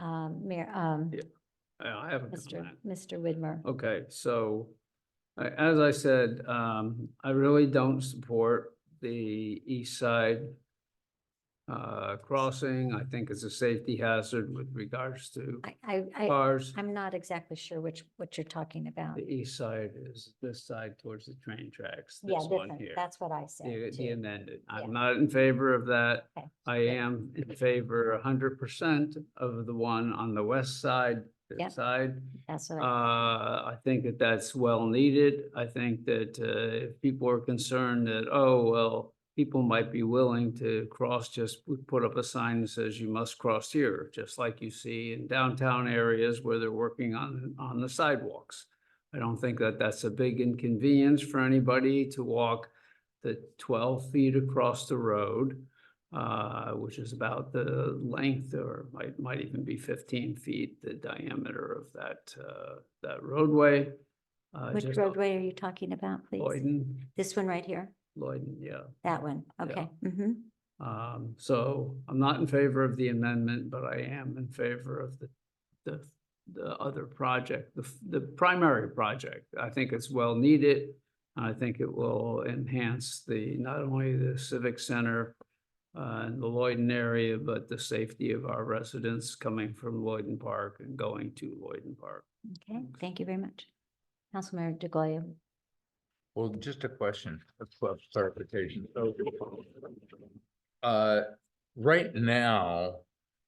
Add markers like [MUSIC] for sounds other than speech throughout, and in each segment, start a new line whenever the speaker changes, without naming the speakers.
um, Mayor, um,
Yeah. Yeah, Oh, I haven't done
Mr.
that.
Mr. Widmer.
Okay, so I- as I said, um, I really don't support the east side uh, crossing. I think it's a safety hazard with regards to
I, I, I,
cars.
I'm not exactly sure which, what you're talking about.
Uh, The east side is this side towards the train tracks,
Yeah,
this one
different.
here.
that's what I
The
said
the
too.
amended.
Yeah.
I'm not in favor of that.
Okay.
I am in favor hundred percent of the one on the west side,
Yeah.
this side.
That's what,
Uh,
I-
I think that that's well needed. I think that, uh, if people are concerned that, oh, well, people might be willing to cross, just we put up a sign that says you must cross here, just like you see in downtown areas where they're working on, on the sidewalks. I don't think that that's a big inconvenience for anybody to walk the twelve feet across the road, uh, which is about the length or might, might even be fifteen feet, the diameter of that, uh, that roadway. Uh,
which
just Oh,
roadway are you talking about, please?
Lloyden,
This one right here?
Lloyden, yeah.
That one? Okay. Mm-hmm.
Um, so I'm not in favor of the amendment, but I am in favor of the, the, the other project, the, f- the primary project. I think it's well needed. I think it will enhance the, not only the civic center uh, in the Lloyden area, but the safety of our residents coming from Lloyden Park and going to Lloyden Park.
Okay. Thank you very much. Councilmember DeGoya.
Well, just a question, a cl- clarification. So, Uh, right now,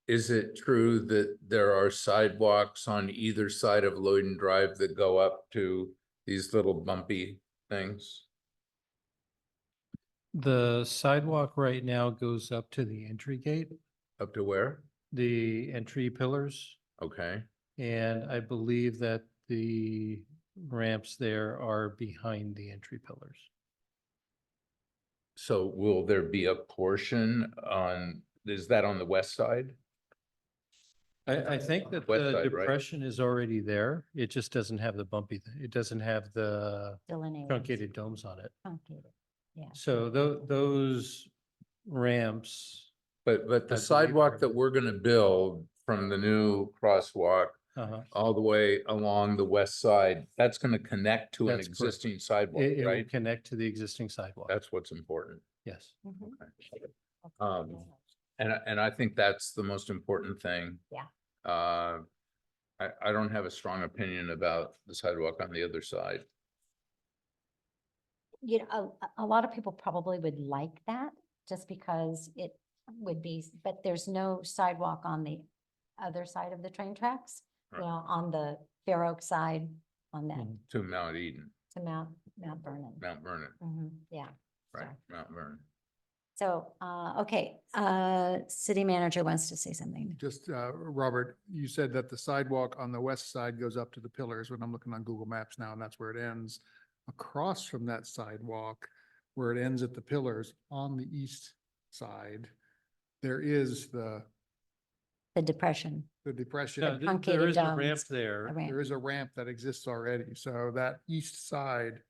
is it true that there are sidewalks on either side of Lloyden Drive that go up to these little bumpy things?
The sidewalk right now goes up to the entry gate,
Up to where?
the entry pillars.
Okay,
And I believe that the ramps there are behind the entry pillars.
so will there be a portion on, is that on the west side?
I, I think that
West
the
side, right?
depression is already there. It just doesn't have the bumpy, th- it doesn't have the
Delineated.
truncated domes on it.
Truncated. Yeah.
So tho- those ramps.
But, but
I
the
believe
sidewalk
there-
that we're gonna build from the new crosswalk
uh-huh,
all the way along the west side, that's gonna connect to an
That's correct.
existing sidewalk,
It, it will
right?
connect to the existing sidewalk.
That's what's important.
Yes.
Mhm.
Um, And, I- and I think that's the most important thing.
Yeah.
Uh, I, I don't have a strong opinion about the sidewalk on the other side.
you know, a, a lot of people probably would like that just because it would be, but there's no sidewalk on the other side of the train tracks. You
Right.
know, on the Fair Oak side, on that,
Mhm.
To Mount Eden,
to Mount, Mount Vernon.
Mount Vernon,
Mhm, yeah.
right,
Sorry.
Mount Vernon.
So, uh, okay, uh, city manager wants to say something.
Just, uh, Robert, you said that the sidewalk on the west side goes up to the pillars, when I'm looking on Google Maps now, and that's where it ends. Across from that sidewalk, where it ends at the pillars, on the east side, there is the,
The depression,
the
No,
depression.
th- There
truncated
is a ramp
domes,
there.
a ramp.
There is a ramp that exists already, so that east side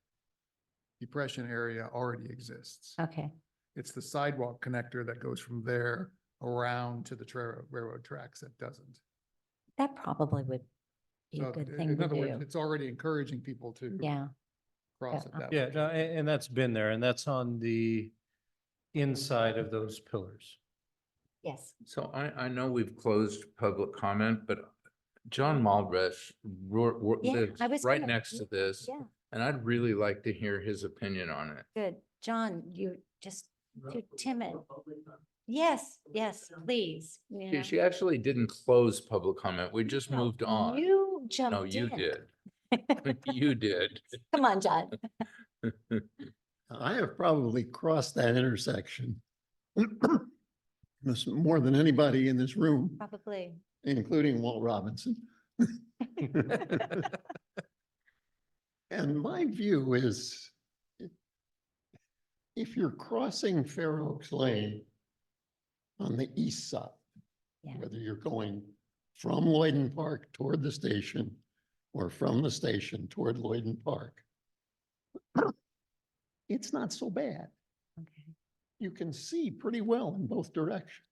depression area already exists.
Okay,
It's the sidewalk connector that goes from there around to the tra- railroad tracks that doesn't.
that probably would be
So
a good
i-
thing
In
to
other words,
do.
it's already encouraging people to
Yeah,
cross
yeah.
it that way.
Yeah, no, a- and, that's been there, and that's on the inside of those pillars.
yes.
So I, I know we've closed public comment, but John Maldresh ro- ro-
Yeah, I
lives
was
right
gonna-
next to this.
yeah.
And I'd really like to hear his opinion on it.
Good. John, you just, too timid. Yes, yes, please. you know.
She, she actually didn't close public comment. We just
No,
moved on.
You
No,
jumped
you
in.
did. [LAUGHS] You did.
[LAUGHS] Come on,
[LAUGHS]
John.
I have probably crossed that intersection. [CLEARS THROAT] Miss- More than anybody in this room,
Probably.
including Walt Robinson. And my view is if you're crossing Fair Oaks Lane on the east side,
Yeah.
whether you're going from Lloyden Park toward the station or from the station toward Lloyden Park, [CLEARS THROAT] it's not so bad.
Okay.
you can see pretty well in both directions.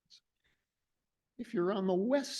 If you're on the west